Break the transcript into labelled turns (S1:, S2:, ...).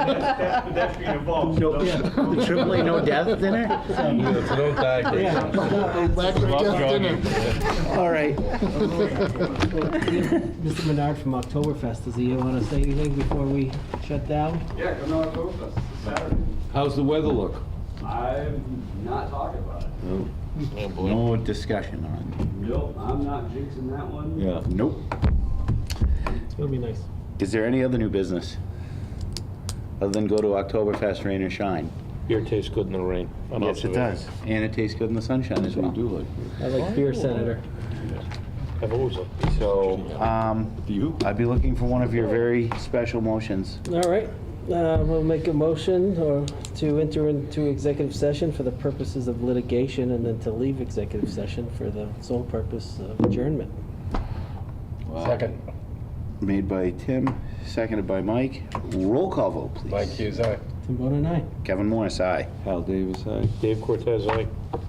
S1: Pedestrian involved.
S2: No, the triple A no death dinner?
S3: It's no tactics.
S4: Lack of
S3: Love
S4: death dinner.
S2: All right.
S5: Mr. Menard from Oktoberfest, does he want to say anything before we shut down?
S6: Yeah, come to Oktoberfest this Saturday.
S3: How's the weather look?
S6: I'm not talking about it.
S2: No discussion on
S6: Nope, I'm not jinxing that one.
S2: it. Nope.
S5: It'll be nice.
S2: Is there any other new business? Other than go to Oktoberfest, rain or shine?
S3: Beer tastes good in the rain. on observation.
S2: And it tastes good in the sunshine as well. do
S5: I like beer, Senator.
S3: I've always liked beer.
S2: So, um,
S3: You?
S2: I'd be looking for one of your very special motions.
S5: All right, uh, we'll make a motion or to enter into executive session for the purposes of litigation and then to leave executive session for the sole purpose of adjournment.
S3: Second.
S2: Made by Tim, seconded by Mike. Roll call vote, please.
S3: Mike Hughes, aye.
S5: Tim Bone and I.
S2: Kevin Morris, aye.
S3: Hal Davis, aye. Dave Cortez, aye.